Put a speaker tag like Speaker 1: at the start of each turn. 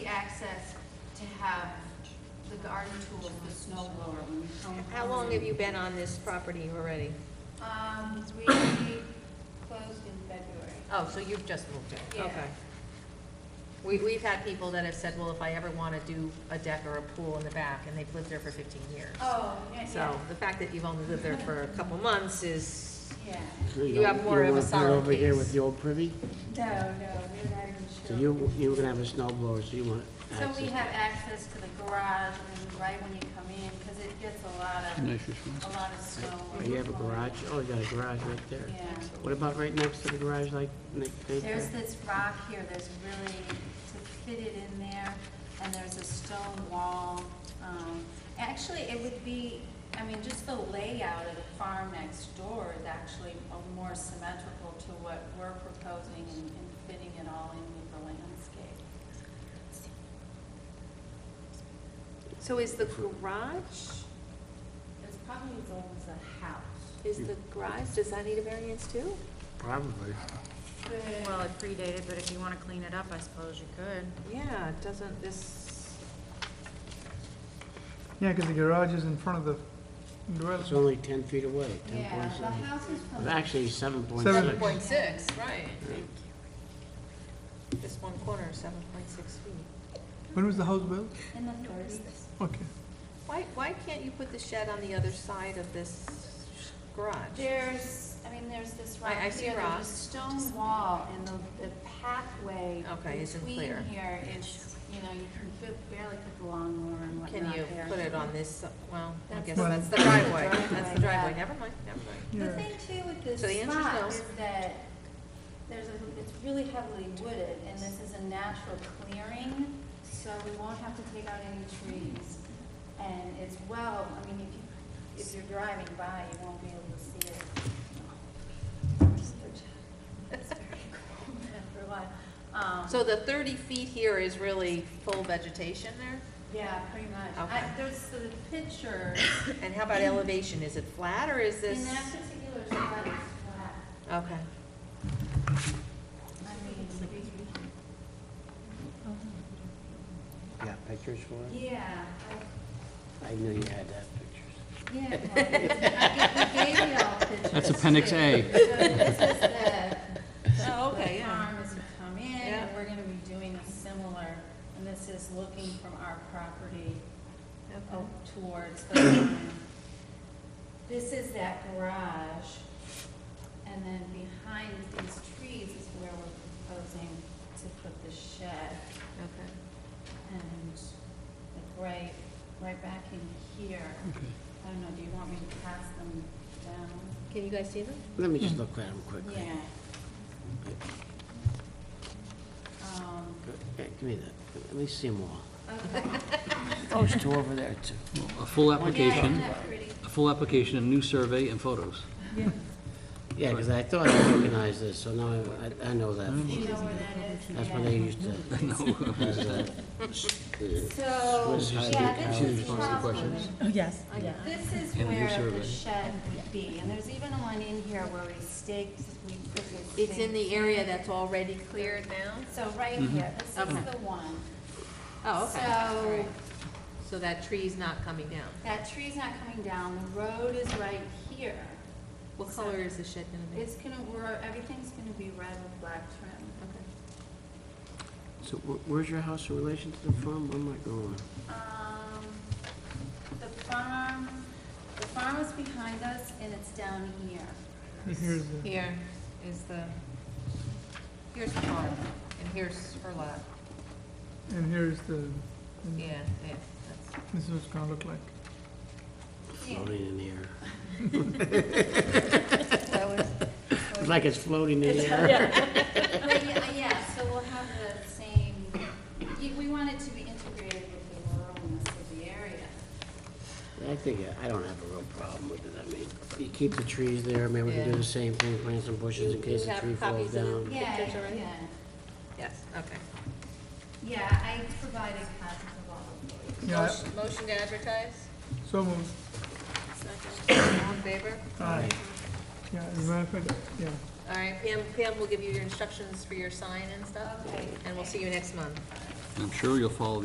Speaker 1: the garden tools, the snow blower, when you come.
Speaker 2: How long have you been on this property already?
Speaker 1: Um, we closed in February.
Speaker 2: Oh, so you've just moved in?
Speaker 1: Yeah.
Speaker 2: Okay. We, we've had people that have said, well, if I ever want to do a deck or a pool in the back, and they've lived there for fifteen years.
Speaker 1: Oh, yeah, yeah,
Speaker 2: So the fact that you've only lived there for a couple months is,
Speaker 1: yeah.
Speaker 3: So
Speaker 2: You
Speaker 3: don't-
Speaker 2: have more of
Speaker 3: don't
Speaker 2: a
Speaker 3: wanna put it
Speaker 2: solid
Speaker 3: over here with
Speaker 2: case.
Speaker 3: the old privy?
Speaker 1: No, no, we're not even sure.
Speaker 3: So you, you were gonna have a snow blower, so you want
Speaker 1: So we
Speaker 3: access.
Speaker 1: have access to the garage and right when you come in, because it gets a lot of, a lot of
Speaker 3: Oh,
Speaker 1: snow.
Speaker 3: You have a garage? Oh, you got a garage right there.
Speaker 1: Yeah.
Speaker 3: What about right next to the garage, like, next right
Speaker 1: There's
Speaker 3: there?
Speaker 1: this rock here, there's really, to fit it in there, and there's a stone wall. Um, Actually, it would be, I mean, just the layout of the farm next door is actually a more symmetrical to what we're proposing and and fitting it all in with the landscape.
Speaker 2: so is the garage,
Speaker 1: It's probably as old as a house.
Speaker 2: is the garage, does that need a variance too?
Speaker 3: Probably.
Speaker 4: Well, it predated, but if you want to clean it up, I suppose you could.
Speaker 2: Yeah, it doesn't this,
Speaker 5: Yeah, because the garage is in front of the
Speaker 3: It's
Speaker 5: dwelling.
Speaker 3: only ten feet away, ten
Speaker 1: Yeah,
Speaker 3: point
Speaker 1: the
Speaker 3: seven.
Speaker 1: house is
Speaker 3: Well,
Speaker 1: from.
Speaker 3: Actually, seven point
Speaker 5: Seven.
Speaker 3: six.
Speaker 2: point six, right. This one corner, seven point six feet.
Speaker 5: When was the house built?
Speaker 1: In the thirties.
Speaker 5: Okay.
Speaker 2: Why, why can't you put the shed on the other side of this garage?
Speaker 1: There's, I mean, there's this rock
Speaker 2: I- I see
Speaker 1: here,
Speaker 2: rock.
Speaker 1: there's a stone wall, and the, the pathway
Speaker 2: Okay, isn't
Speaker 1: between
Speaker 2: clear.
Speaker 1: here is, you know, you can fi- barely put the lawnmower and whatnot
Speaker 2: Can you
Speaker 1: there.
Speaker 2: put it on this, well, I
Speaker 1: That's
Speaker 2: guess
Speaker 5: the-
Speaker 2: that's the driveway, that's
Speaker 1: driveway,
Speaker 2: the driveway,
Speaker 1: yeah.
Speaker 2: never mind, never mind.
Speaker 1: The
Speaker 5: Yeah.
Speaker 1: thing too with this
Speaker 2: So the answer's no.
Speaker 1: spot is that there's a, it's really heavily wooded, and this is a natural clearing, so we won't have to take out any trees. And it's well, I mean, if you, if you're driving by, you won't be able to see it. It's very cold after a while. Um,
Speaker 2: So the thirty feet here is really full vegetation there?
Speaker 1: Yeah, pretty much. I,
Speaker 2: Okay.
Speaker 1: there's the picture,
Speaker 2: And how about elevation, is it flat or is
Speaker 1: in
Speaker 2: this?
Speaker 1: that particular spot, it's flat.
Speaker 2: Okay,
Speaker 1: I mean,
Speaker 3: Yeah, pictures for it?
Speaker 1: yeah,
Speaker 3: I knew you had that pictures.
Speaker 1: I- yeah. no, I gave- I gave you all pictures.
Speaker 6: That's Appendix A.
Speaker 1: too. So this is the- the-
Speaker 2: Oh, okay,
Speaker 1: the
Speaker 2: yeah.
Speaker 1: farm as you come in,
Speaker 2: Yeah.
Speaker 1: and we're gonna be doing a similar, and this is looking from our property
Speaker 2: okay.
Speaker 1: o- towards the farm. This is that garage, and then behind these trees is where we're proposing to put the shed.
Speaker 2: Okay.
Speaker 1: And like right, right back in here. I don't know, do you want me to pass them down?
Speaker 2: Can you guys see them?
Speaker 3: Let me just look at them quickly.
Speaker 1: Yeah. Um,
Speaker 3: Hey, Give me that, let me see them all.
Speaker 1: okay.
Speaker 3: Oh, there's two over there too.
Speaker 6: A full
Speaker 1: Yeah, isn't
Speaker 6: application,
Speaker 1: that pretty?
Speaker 6: a full application, a new survey and photos.
Speaker 3: Yeah, because I thought I recognized this, so now I, I- I know that.
Speaker 1: Do you know where that is?
Speaker 3: That's where they used to.
Speaker 1: So,
Speaker 3: Swiss hide
Speaker 1: yeah, this
Speaker 3: cows.
Speaker 1: is
Speaker 6: Response to
Speaker 1: probably.
Speaker 6: questions?
Speaker 2: Oh,
Speaker 4: Yes, yeah.
Speaker 1: This is
Speaker 6: And a new
Speaker 1: where the
Speaker 6: survey.
Speaker 1: shed would be, and there's even one in here where we staked, we put the.
Speaker 2: It's in
Speaker 1: stake.
Speaker 2: the area that's already cleared now?
Speaker 1: So right here, this is
Speaker 2: Okay.
Speaker 1: the one.
Speaker 2: Oh, okay. All
Speaker 1: So,
Speaker 2: right. So that tree's not coming down?
Speaker 1: that tree's not coming down, the road is right here.
Speaker 2: What color is the shed gonna be?
Speaker 1: It's gonna, we're, everything's gonna be red with black trim.
Speaker 2: Okay.
Speaker 3: So wh- where's your house in relation to the farm? Where am I going?
Speaker 1: Um, the farm, the farm is behind us and it's down here.
Speaker 5: Here's the.
Speaker 2: Here is the, here's the farm, and here's her lot.
Speaker 5: And here's the,
Speaker 2: Yeah, yeah, that's,
Speaker 5: this is what it's gonna look like.
Speaker 3: Floating in the air. It's like it's floating in the air.
Speaker 1: But yeah, yeah, so we'll have the same, you- we want it to be integrated with the ruralness of the area.
Speaker 3: I think, I don't have a real problem with it, I mean, you keep the trees there, maybe we can do
Speaker 2: Yeah.
Speaker 3: the same thing, plant some bushes in
Speaker 2: You-
Speaker 3: case
Speaker 2: you
Speaker 3: a
Speaker 2: have
Speaker 3: tree falls
Speaker 2: copies of
Speaker 3: down.
Speaker 1: Yeah,
Speaker 2: Pictures already?
Speaker 1: yeah.
Speaker 2: yes, okay.
Speaker 1: Yeah, I provided copies of all of those.
Speaker 5: Yeah, I-
Speaker 2: Motion- Motion to advertise?
Speaker 5: so moved.
Speaker 2: Second. All in favor?
Speaker 5: Aye. Yeah, as a matter of fact, yeah.
Speaker 2: All right, Pam, Pam will give you your instructions for your sign and stuff,
Speaker 1: Okay.
Speaker 2: and we'll see you next month.
Speaker 6: I'm sure you'll follow